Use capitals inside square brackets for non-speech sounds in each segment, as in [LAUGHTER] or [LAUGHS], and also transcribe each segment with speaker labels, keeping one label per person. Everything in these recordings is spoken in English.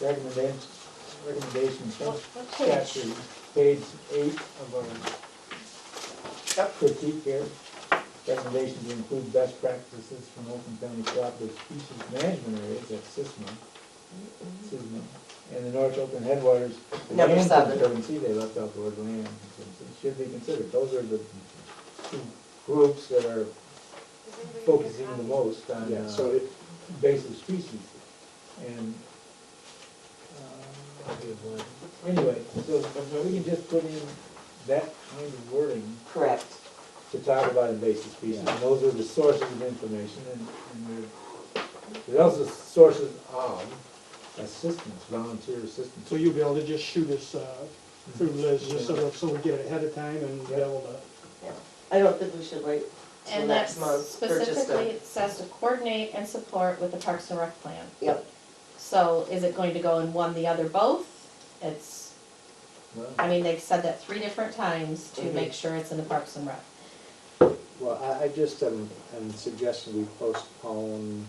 Speaker 1: recommendations, recommendations from
Speaker 2: What- what page?
Speaker 1: statute, page eight of our critique here. Recommendations include best practices from Oakland County Cooperative Species Management Areas, that's SISMA. SISMA, and the North Oakland Headwaters.
Speaker 3: Number
Speaker 1: land
Speaker 3: seven.
Speaker 1: Conservancy, they left out the word land, conservancy, should be considered, those are the two groups that are focusing the most on,
Speaker 4: Yeah, so
Speaker 1: uh,
Speaker 4: it,
Speaker 1: invasive species. And, uh, Anyway, so we can just put in that kind of wording
Speaker 3: Correct.
Speaker 1: to talk about invasive species, and those are the sources of information, and, and they're, they're also sources of assistance, volunteer assistance.
Speaker 4: so you'll be able to just shoot us, uh, through Liz, just so, that- so we get it ahead of time and be able to,
Speaker 3: Yeah. I don't think we should wait till
Speaker 2: And that's
Speaker 3: next month for just
Speaker 2: specifically,
Speaker 3: a.
Speaker 2: it says to coordinate and support with the Parks and Rec plan.
Speaker 3: Yep,
Speaker 2: So is it going to go in one, the other, both? It's,
Speaker 1: Well,
Speaker 2: I mean, they've said that three different times to
Speaker 3: Mhm.
Speaker 2: make sure it's in the Parks and Rec.
Speaker 4: well, I, I just am, am suggesting we postpone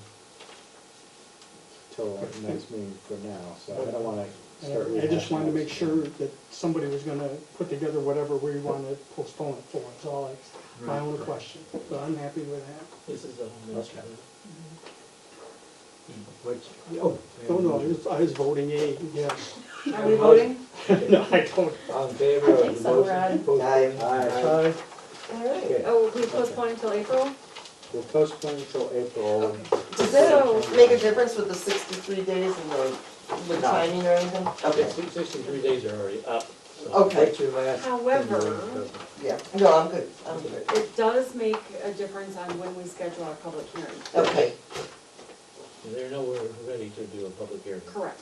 Speaker 4: till next meeting for now, so I don't wanna start.
Speaker 5: Uh, I just wanted to make sure that somebody was gonna put together whatever we want to postpone it for, it's all like, my own question, but I'm happy with that.
Speaker 1: This is a whole bunch
Speaker 4: Okay.
Speaker 1: of- Which, oh.
Speaker 5: No, no, I was, I was voting aye, yes.
Speaker 3: are we voting?
Speaker 5: [LAUGHS] No, I don't,
Speaker 1: All in favor
Speaker 2: I think
Speaker 1: of the
Speaker 2: so, Rod.
Speaker 1: motion? Opposed?
Speaker 3: Aye.
Speaker 4: Aye.
Speaker 3: All right.
Speaker 1: Okay.
Speaker 6: Oh, we postponed until April?
Speaker 4: We'll postpone until April.
Speaker 3: Does that
Speaker 4: So-
Speaker 3: make a difference with the sixty-three days and the, the timing or anything? Okay,
Speaker 7: Sixty-three days are already up, so.
Speaker 3: okay,
Speaker 1: That's your last.
Speaker 6: However-
Speaker 3: yeah, no, I'm good, I'm good,
Speaker 6: It does make a difference on when we schedule our public hearing.
Speaker 3: okay.
Speaker 7: They're nowhere ready to do a public hearing.
Speaker 6: Correct.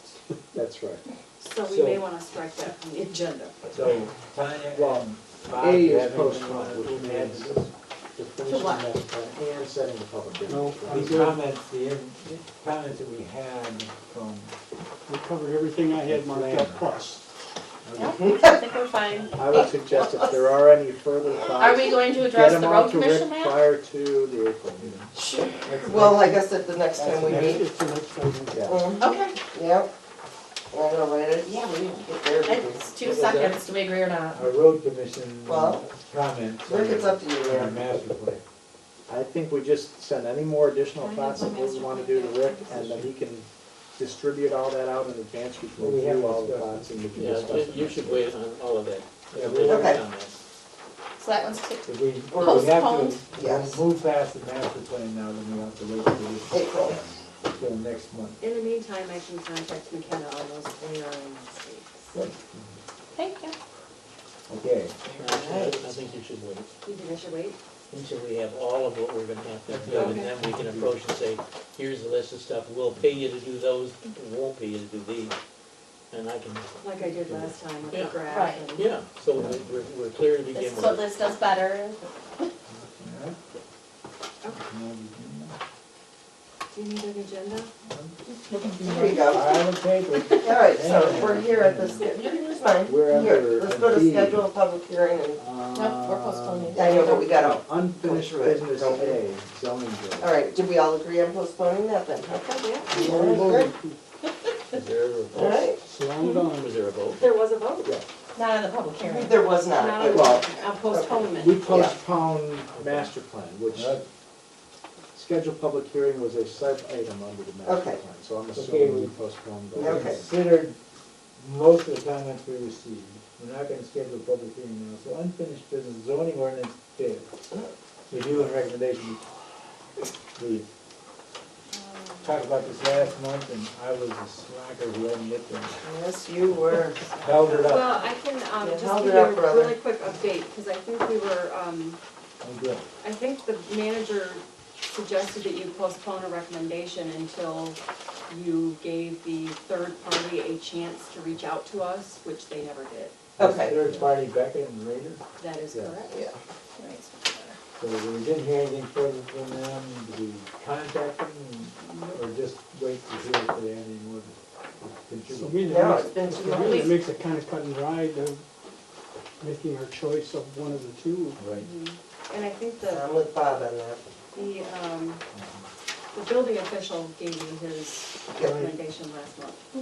Speaker 4: That's right.
Speaker 6: So we may
Speaker 1: So-
Speaker 6: want to strike that from the agenda.
Speaker 1: So, Tanya,
Speaker 4: Well,
Speaker 1: um, Bob,
Speaker 4: A
Speaker 1: you
Speaker 4: is
Speaker 1: have anything you
Speaker 4: postponed,
Speaker 1: wanna
Speaker 4: which
Speaker 1: add
Speaker 4: means-
Speaker 1: to this?
Speaker 4: Definition
Speaker 3: what?
Speaker 4: of plan uh, and setting the public hearing.
Speaker 5: No, I'm
Speaker 1: These
Speaker 5: good,
Speaker 1: comments, the, in- the comments that we had from,
Speaker 5: we covered everything I had marked up plus.
Speaker 2: Yep, I think we're fine.
Speaker 4: I would suggest if there are any further
Speaker 2: Are
Speaker 4: thoughts,
Speaker 2: we going to
Speaker 4: Uh, get
Speaker 2: address
Speaker 4: them
Speaker 2: the
Speaker 4: out
Speaker 2: road
Speaker 4: to Rick
Speaker 2: commission map?
Speaker 4: prior to the April meeting.
Speaker 3: Well, I guess at the next time we
Speaker 5: Next,
Speaker 3: meet.
Speaker 5: it's the next item.
Speaker 4: Yeah.
Speaker 3: Mhm.
Speaker 2: Okay,
Speaker 3: Yep. And I'm gonna write it, yeah, we didn't get there. did we?
Speaker 2: it's two seconds, do we agree or not?
Speaker 1: our road commission
Speaker 3: Well,
Speaker 1: comments.
Speaker 3: Rick, it's up to you,
Speaker 1: on Our
Speaker 3: man.
Speaker 1: master plan.
Speaker 4: I think we just send any more additional
Speaker 6: I have
Speaker 4: thoughts
Speaker 6: my
Speaker 4: that we
Speaker 6: master
Speaker 4: wanna do
Speaker 6: plan.
Speaker 4: to Rick, and then he can distribute all that out in advance, we can
Speaker 1: Well, we have
Speaker 4: review all the
Speaker 1: discussed it.
Speaker 4: thoughts and we can
Speaker 7: Yeah,
Speaker 4: discuss.
Speaker 7: you
Speaker 4: them.
Speaker 7: should wait on all of that.
Speaker 1: Yeah,
Speaker 7: Wait
Speaker 1: we-
Speaker 7: on
Speaker 3: Okay.
Speaker 7: that.
Speaker 2: So that one's two.
Speaker 1: If we, if we
Speaker 2: Postponed.
Speaker 1: have to,
Speaker 3: Yes.
Speaker 1: we'll move past the master plan now, then we have to wait till this,
Speaker 3: April,
Speaker 1: till next month.
Speaker 6: In the meantime, I can contact McKenna on those hearing dates.
Speaker 2: Thank you.
Speaker 1: Okay,
Speaker 7: I I think you should wait
Speaker 6: You think I should wait?
Speaker 7: until we have all of what we're gonna have to do,
Speaker 6: Okay.
Speaker 7: and then we can approach and say, here's the list of stuff, we'll pay you to do those, we won't pay you to do these. And I can,
Speaker 6: Like I did last time with the
Speaker 7: Yeah.
Speaker 6: graph
Speaker 2: Right.
Speaker 6: and.
Speaker 7: yeah, so we're, we're- we're clear to begin
Speaker 2: This is
Speaker 7: with.
Speaker 2: what Liz does better.
Speaker 1: alright.
Speaker 6: Do you need an agenda?
Speaker 3: here we go.
Speaker 1: I will take it.
Speaker 3: All right, so we're here at this, you can use mine.
Speaker 4: We're
Speaker 3: Here,
Speaker 4: under
Speaker 3: Let's go to
Speaker 4: B.
Speaker 3: schedule a public hearing and,
Speaker 2: No, we're postponing.
Speaker 3: I know, but we got
Speaker 4: Um,
Speaker 3: out.
Speaker 4: Unfinished
Speaker 3: Go through it.
Speaker 4: business A, zoning board.
Speaker 3: All right, did we all agree on postponing that then?
Speaker 6: Okay, yeah.
Speaker 5: We already voted.
Speaker 7: Is there a vote?
Speaker 3: All right,
Speaker 5: So I'm done.
Speaker 7: Was there a vote?
Speaker 6: There was a vote.
Speaker 2: Not in the public hearing.
Speaker 3: [LAUGHS] there was
Speaker 6: Now,
Speaker 3: not.
Speaker 4: Well-
Speaker 6: a postponement.
Speaker 4: We postponed master plan, which
Speaker 1: Right.
Speaker 4: scheduled public hearing was a sub-item under the master
Speaker 3: Okay.
Speaker 4: plan, so I'm
Speaker 1: Okay,
Speaker 4: assuming
Speaker 1: we-
Speaker 4: we postponed
Speaker 1: We
Speaker 4: those.
Speaker 3: Okay.
Speaker 1: considered most of the comments we received. We're not gonna schedule a public hearing now, so unfinished business zoning ordinance bid. Review and recommendation. We talked about this last month and I was a slacker who hadn't yet been
Speaker 3: Yes, you were.
Speaker 1: held it up.
Speaker 6: Well, I can um,
Speaker 3: Yeah,
Speaker 6: just
Speaker 3: held
Speaker 6: give
Speaker 3: it
Speaker 6: you
Speaker 3: up,
Speaker 6: a
Speaker 3: brother.
Speaker 6: really quick update, because I think we were, um,
Speaker 1: I'm good.
Speaker 6: I think the manager suggested that you postpone a recommendation until you gave the third party a chance to reach out to us, which they never did.
Speaker 3: Okay.
Speaker 1: Third party Becca and Raider,
Speaker 6: That is
Speaker 4: Yeah.
Speaker 6: correct.
Speaker 3: Yeah.
Speaker 2: Right, so better.
Speaker 1: so we didn't hear anything further from them, did we contact them or just wait to hear if they had any more to
Speaker 5: So
Speaker 1: contribute?
Speaker 5: we need to
Speaker 3: No,
Speaker 5: make-
Speaker 3: it's been too
Speaker 5: It really
Speaker 3: long.
Speaker 5: makes it kind of cut and dry, the, making our choice of one of the two.
Speaker 1: Right.
Speaker 6: And I think
Speaker 3: So
Speaker 6: the,
Speaker 3: I'm with Bob on that.
Speaker 6: the, um, the building official gave you his
Speaker 3: Yeah.
Speaker 6: recommendation last month.